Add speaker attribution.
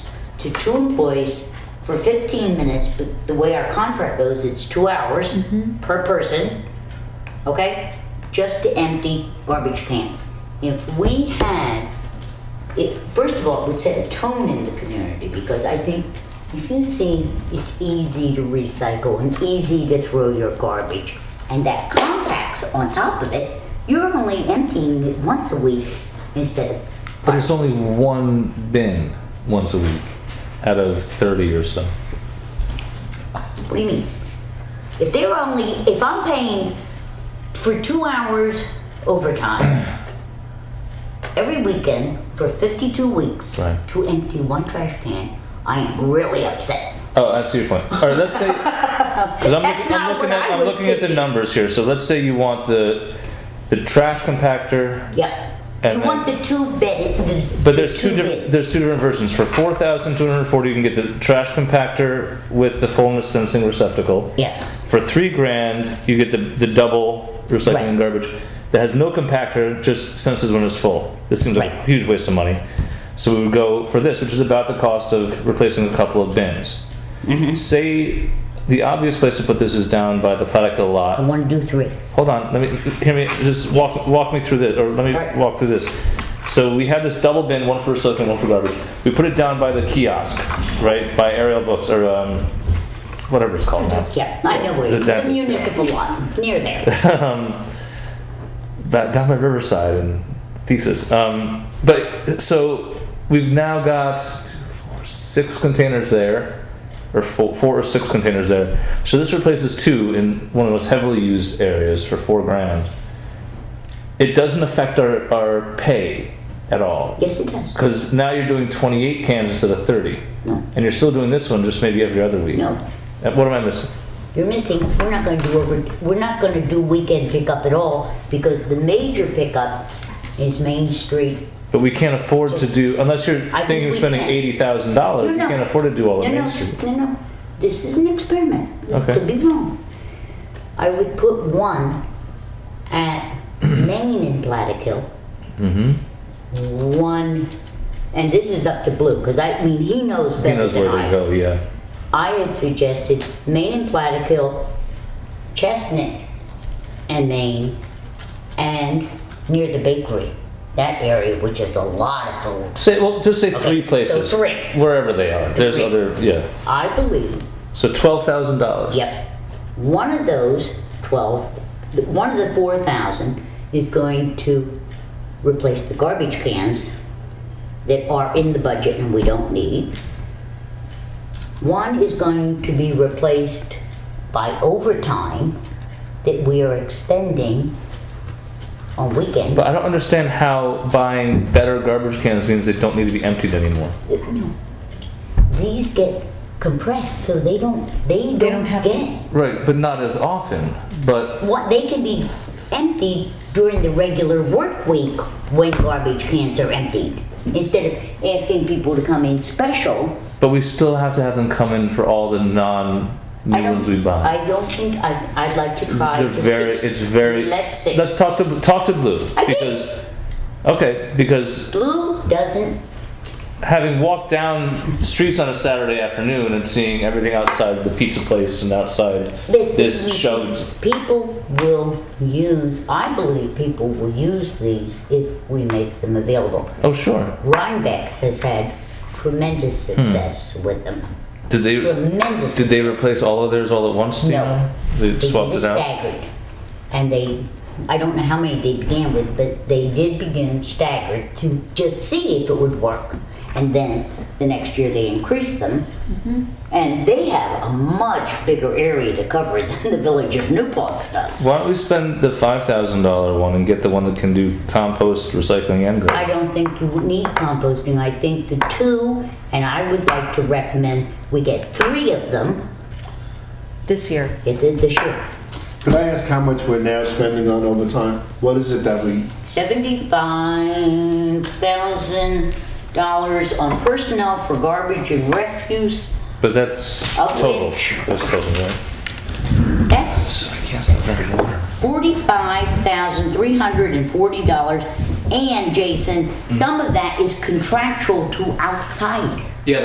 Speaker 1: to two employees for 15 minutes, but the way our contract goes, it's two hours
Speaker 2: Mm-hmm.
Speaker 1: per person, okay? Just to empty garbage cans. If we had, it, first of all, it would set a tone in the community because I think if you see it's easy to recycle and easy to throw your garbage, and that compacts on top of it, you're only emptying it once a week instead of
Speaker 2: But it's only one bin once a week out of 30 or so.
Speaker 1: What do you mean? If they're only, if I'm paying for two hours overtime every weekend for 52 weeks
Speaker 2: Right.
Speaker 1: to empty one trash can, I am really upset.
Speaker 2: Oh, I see your point. All right, let's say because I'm,
Speaker 1: That's
Speaker 2: looking, I'm
Speaker 1: not
Speaker 2: looking
Speaker 1: what
Speaker 2: at
Speaker 1: I
Speaker 2: I'm
Speaker 1: was
Speaker 2: looking at the
Speaker 1: thinking.
Speaker 2: numbers here. So let's say you want the the trash compactor,
Speaker 1: Yep.
Speaker 2: And
Speaker 1: you want
Speaker 2: then-
Speaker 1: the two bed. the-
Speaker 2: but there's
Speaker 1: the bed.
Speaker 2: two different there's two different versions. For 4,240, you can get the trash compactor with the fullness sensing receptacle.
Speaker 1: Yeah.
Speaker 2: For three grand, you get the the double recycling
Speaker 1: Right.
Speaker 2: and garbage that has no compactor, just senses when it's full. This seems like a
Speaker 1: Right.
Speaker 2: huge waste of money. So we would go for this, which is about the cost of replacing a couple of bins. Say the obvious place to put this is down by the Platica lot.
Speaker 1: I want to do three.
Speaker 2: Hold on, let me hear me. Just walk walk me through this, or let me
Speaker 1: Alright.
Speaker 2: walk through this. So we have this double bin, one for recycling, one for garbage. We put it down by the kiosk, right, by Ariel Books or um, whatever it's called now.
Speaker 1: Yeah, I know where you
Speaker 2: That
Speaker 1: The
Speaker 2: is-
Speaker 1: municipal lot, near there.
Speaker 2: Ba- down by Riverside and Thesis. Um, but so we've now got two, four, six containers there, or four, four or six containers there. So this replaces two in one of the most heavily used areas for four grand. It doesn't affect our, our pay at all.
Speaker 1: Yes, it does.
Speaker 2: Because now you're doing 28 cans instead of 30.
Speaker 1: No.
Speaker 2: And you're still doing this one just maybe every other week.
Speaker 1: No.
Speaker 2: Uh, What am I missing?
Speaker 1: You're missing, we're not gonna do over, we're not gonna do weekend pickup at all, because the major pickup is Main Street.
Speaker 2: But we can't afford to do, unless you're
Speaker 1: think
Speaker 2: thinking of
Speaker 1: we
Speaker 2: spending
Speaker 1: can.
Speaker 2: $80,000,
Speaker 1: No,
Speaker 2: you
Speaker 1: no.
Speaker 2: can't afford to do all
Speaker 1: No,
Speaker 2: of Main
Speaker 1: no,
Speaker 2: Street.
Speaker 1: no, no, this is an experiment.
Speaker 2: Okay.
Speaker 1: Could be wrong. I would put one at Main and Plattekill. Mm-hmm. One, and this is up to Blue, cause I, I mean, he knows
Speaker 2: He
Speaker 1: better
Speaker 2: knows
Speaker 1: than
Speaker 2: where to
Speaker 1: I.
Speaker 2: go, yeah.
Speaker 1: I had suggested Main and Plattekill, Chestnut and Maine and near the bakery. That area, which is a lot of food.
Speaker 2: Say, well, just say
Speaker 1: Okay,
Speaker 2: three
Speaker 1: so
Speaker 2: places.
Speaker 1: three.
Speaker 2: Wherever they are. There's
Speaker 1: Three.
Speaker 2: other, yeah.
Speaker 1: I believe,
Speaker 2: So $12,000.
Speaker 1: yep, one of those 12, th- one of the 4,000 is going to replace the garbage cans that are in the budget and we don't need. One is going to be replaced by overtime that we are expending on weekends.
Speaker 2: But I don't understand how buying better garbage cans means they don't need to be emptied anymore.
Speaker 1: No. These get compressed, so they don't, they don't
Speaker 3: don't have
Speaker 1: get,
Speaker 2: Right, but not as often. But
Speaker 1: what, they can be emptied during the regular work week when garbage cans are emptied. Instead of asking people to come in special,
Speaker 2: but we still have to have them come in for all the non new
Speaker 1: I don't,
Speaker 2: ones we buy.
Speaker 1: I don't think, I, I'd like to try
Speaker 2: They're
Speaker 1: to
Speaker 2: very.
Speaker 1: see.
Speaker 2: It's very.
Speaker 1: Let's see.
Speaker 2: Let's talk to talk to Blue
Speaker 1: I did.
Speaker 2: because. Okay, because
Speaker 1: Blue doesn't,
Speaker 2: having walked down streets on a Saturday afternoon and seeing everything outside the pizza place and outside
Speaker 1: that.
Speaker 2: this
Speaker 1: these-
Speaker 2: shoved
Speaker 1: People will use, I believe people will use these if we make them available.
Speaker 2: Oh, sure.
Speaker 1: Rhinebeck has had tremendous
Speaker 2: Hmm.
Speaker 1: success with them.
Speaker 2: Did they
Speaker 1: Tremendous.
Speaker 2: did they replace all of theirs all at once? Do you
Speaker 1: No.
Speaker 2: know? They
Speaker 1: They
Speaker 2: swapped
Speaker 1: did
Speaker 2: it out.
Speaker 1: staggered, and they, I don't know how many they began with, but they did begin staggered to just see if it would work. And then the next year they increased them,
Speaker 3: Mm-hmm.
Speaker 1: and they have a much bigger area to cover than the village of New Paltz does.
Speaker 2: Why don't we spend the five thousand dollar one and get the one that can do compost, recycling, and
Speaker 1: I
Speaker 2: garbage?
Speaker 1: don't think you would need composting. I think the two, and I would like to recommend we get three of them.
Speaker 3: this year.
Speaker 1: It did this year.
Speaker 4: Could I ask how much we're now spending on overtime? What is it that we,
Speaker 1: Seventy-five thousand dollars on personnel for garbage and refuse.
Speaker 2: But that's
Speaker 1: I'll
Speaker 2: total.
Speaker 1: take-
Speaker 2: That's total, right?
Speaker 1: That's
Speaker 2: I can't stop drinking water.
Speaker 1: forty-five thousand three hundred and forty dollars. And Jason, some of that is contractual to outside.